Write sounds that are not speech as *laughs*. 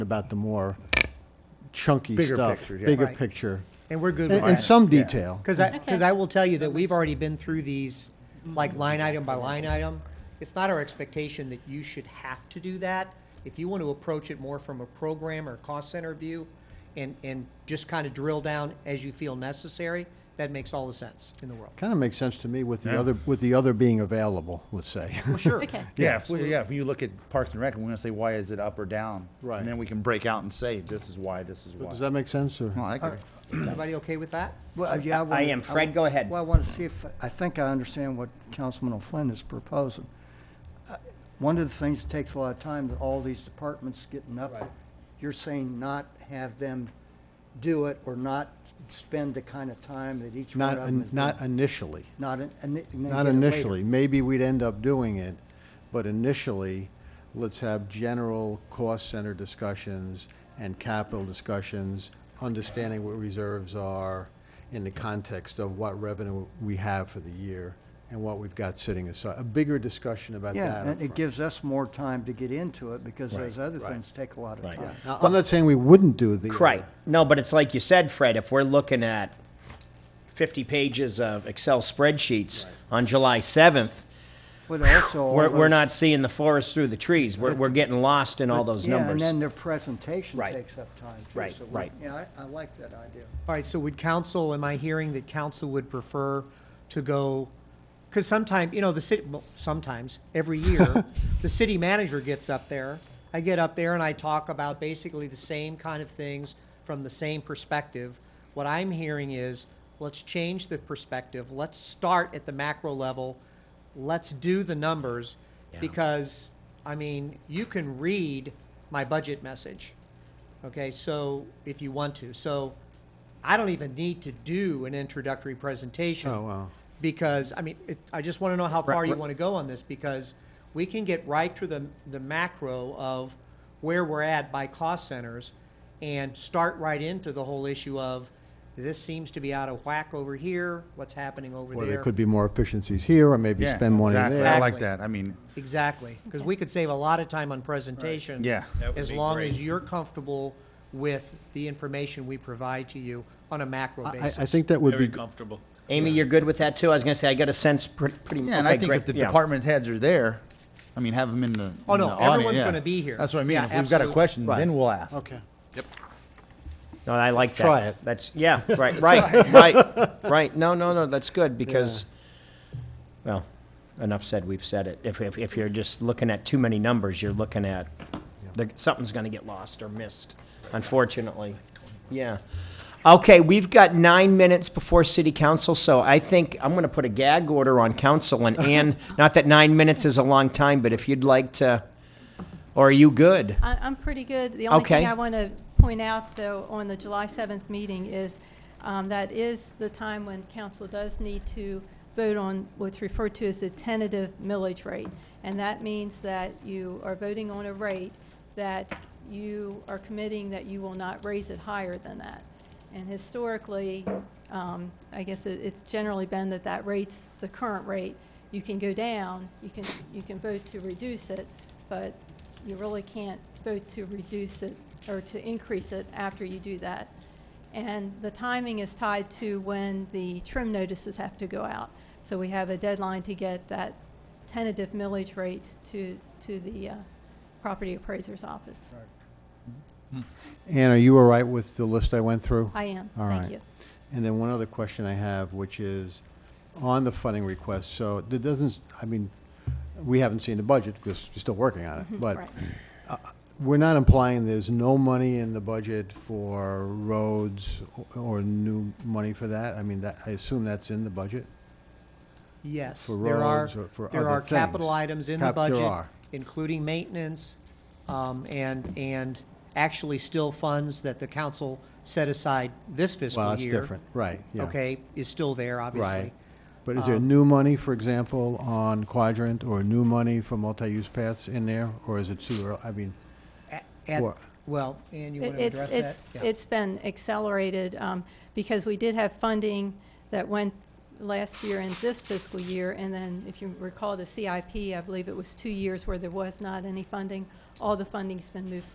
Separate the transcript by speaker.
Speaker 1: about the more chunky
Speaker 2: Bigger
Speaker 1: stuff.
Speaker 2: picture, yeah.
Speaker 1: Bigger
Speaker 3: Right.
Speaker 1: picture.
Speaker 3: And we're good
Speaker 1: In-
Speaker 3: with that.
Speaker 1: in some detail.
Speaker 3: Because I, because I will tell you that we've already been through these, like line item by line item. It's not our expectation that you should have to do that. If you want to approach it more from a program or cost center view and, and just kind of drill down as you feel necessary, that makes all the sense in the world.
Speaker 1: Kind of makes sense to me with the
Speaker 2: Yeah.
Speaker 1: other, with the other being available, let's say. *laughs*
Speaker 3: For sure.
Speaker 4: Okay.
Speaker 2: Yeah, if, we- yeah, if you look at Parks and Rec, we're gonna say, why is it up or down?
Speaker 1: Right.
Speaker 2: And then we can break out and say, this is why, this is why.
Speaker 1: Does that make sense, or?
Speaker 2: Well, I agree.
Speaker 3: Everybody okay with that?
Speaker 5: Well, uh, yeah, I
Speaker 6: I
Speaker 5: wanna-
Speaker 6: am. Fred, go ahead.
Speaker 5: Well, I want to see if, I think I understand what Councilman O'Flynn is proposing. Uh, One of the things that takes a lot of time, that all these departments getting up, you're saying not have them do it or not spend the kind of time that each one
Speaker 1: Not,
Speaker 5: of them
Speaker 1: in-
Speaker 5: is.
Speaker 1: not
Speaker 5: doing.
Speaker 1: initially.
Speaker 5: Not, in- and it- and then
Speaker 1: Not
Speaker 5: get it later.
Speaker 1: initially. Maybe we'd end up doing it, but initially, let's have general cost center discussions and capital discussions, understanding what reserves are in the context of what revenue we have for the year and what we've got sitting aside. A bigger discussion about that.
Speaker 5: Yeah, and
Speaker 1: upfront.
Speaker 5: it gives us more time to get into it because those other things take a lot of
Speaker 6: Right.
Speaker 5: time.
Speaker 1: Now, I'm not saying we wouldn't do the.
Speaker 6: Right. No, but it's like you said, Fred, if we're looking at 50 pages of Excel spreadsheets on July 7th,
Speaker 5: But also. all
Speaker 6: we're, we're
Speaker 5: those-
Speaker 6: not seeing the forest through the trees. We're, we're getting lost in all those
Speaker 5: Yeah, and then
Speaker 6: numbers.
Speaker 5: their presentation
Speaker 6: Right.
Speaker 5: takes up time too.
Speaker 6: Right,
Speaker 5: so we-
Speaker 6: right.
Speaker 5: Yeah, I, I like that idea.
Speaker 3: All right, so would council, am I hearing that council would prefer to go, because sometime, you know, the city, well, sometimes, every year, the city manager gets up there. I get up there and I talk about basically the same kind of things from the same perspective. What I'm hearing is, let's change the perspective. Let's start at the macro level. Let's do the numbers. Because, I mean, you can read my budget message. Okay, so if you want to, so I don't even need to do an introductory presentation.
Speaker 1: Oh, wow.
Speaker 3: Because, I mean, it, I just want to know how far you
Speaker 6: right.
Speaker 3: want to go on this because we can get right to the, the macro of where we're at by cost centers and start right into the whole issue of this seems to be out of whack over here, what's happening over
Speaker 1: Or
Speaker 3: there.
Speaker 1: there could be more efficiencies here, or maybe
Speaker 2: Yeah,
Speaker 1: spend money
Speaker 2: exactly.
Speaker 1: there.
Speaker 2: I like
Speaker 3: Exactly.
Speaker 2: that. I mean,
Speaker 3: Exactly, because we could save a lot of time on presentation.
Speaker 2: Yeah. That
Speaker 3: As long as you're comfortable with the information we provide to you on a macro
Speaker 1: I, I
Speaker 3: basis.
Speaker 1: think that would be,
Speaker 7: Very
Speaker 1: g-
Speaker 7: comfortable.
Speaker 6: Amy, you're good with that too? I was going to say, I got a sense pretty, pretty
Speaker 2: yeah, and
Speaker 6: okay,
Speaker 2: I think
Speaker 6: great.
Speaker 2: if the
Speaker 6: Yeah.
Speaker 2: department heads are there, I mean, have them in the.
Speaker 3: Oh,
Speaker 2: in
Speaker 3: no,
Speaker 2: the audience,
Speaker 3: everyone's
Speaker 2: yeah.
Speaker 3: gonna be here.
Speaker 2: That's what I mean.
Speaker 3: Yeah,
Speaker 2: If we've got a
Speaker 3: absolutely.
Speaker 2: question,
Speaker 1: Right.
Speaker 2: then we'll ask.
Speaker 1: okay.
Speaker 6: No, I like that.
Speaker 1: Try it.
Speaker 6: That's, yeah,
Speaker 1: *laughs*
Speaker 6: right, right, right, right. No, no, no, that's good because, well, enough said, we've said it. If, if, if you're just looking at too many numbers, you're looking at, the, something's gonna get lost or missed, unfortunately. Yeah. Okay, we've got nine minutes before city council, so I think I'm gonna put a gag order on council
Speaker 1: *laughs*
Speaker 6: and Ann, not that nine minutes is a long time, but if you'd like to, or are you good?
Speaker 4: I, I'm pretty good. The only
Speaker 6: Okay.
Speaker 4: thing I want to point out, though, on the July 7th meeting is um, that is the time when council does need to vote on what's referred to as the tentative millage rate. And that means that you are voting on a rate that you are committing that you will not raise it higher than that. And historically, um, I guess it, it's generally been that that rate's the current rate. You can go down, you can, you can vote to reduce it, but you really can't vote to reduce it or to increase it after you do that. And the timing is tied to when the trim notices have to go out. So we have a deadline to get that tentative millage rate to, to the uh, property appraiser's office.
Speaker 1: Ann, are you all right with the list I went through?
Speaker 4: I am,
Speaker 1: All
Speaker 4: thank
Speaker 1: right.
Speaker 4: you.
Speaker 1: And then one other question I have, which is on the funding request, so it doesn't, I mean, we haven't seen the budget because we're still working on it, but
Speaker 4: Mm-hmm. Right.
Speaker 1: we're not implying there's no money in the budget for roads o- or new money for that? I mean, that, I assume that's in the budget?
Speaker 3: Yes,
Speaker 1: for
Speaker 3: there are,
Speaker 1: roads or for
Speaker 3: there
Speaker 1: other
Speaker 3: are capital
Speaker 1: things.
Speaker 3: items in the
Speaker 1: Cap- there
Speaker 3: budget,
Speaker 1: are.
Speaker 3: including maintenance, um, and, and actually still funds that the council set aside this
Speaker 1: Well,
Speaker 3: fiscal
Speaker 1: that's
Speaker 3: year.
Speaker 1: different, right, yeah.
Speaker 3: Okay, is still there, obviously.
Speaker 1: Right. But is there
Speaker 4: Um,
Speaker 1: new money, for example, on quadrant or new money for multi-use paths in there? Or is it too early? I mean,
Speaker 3: At-
Speaker 1: What?
Speaker 3: Well, Ann, you want to
Speaker 4: It-
Speaker 3: address that?
Speaker 4: it's-
Speaker 3: Yeah.
Speaker 4: It's, it's been accelerated, um, because we did have funding that went last year and this fiscal year, and then if you recall the CIP, I believe it was two years where there was not any funding. All the funding's been moved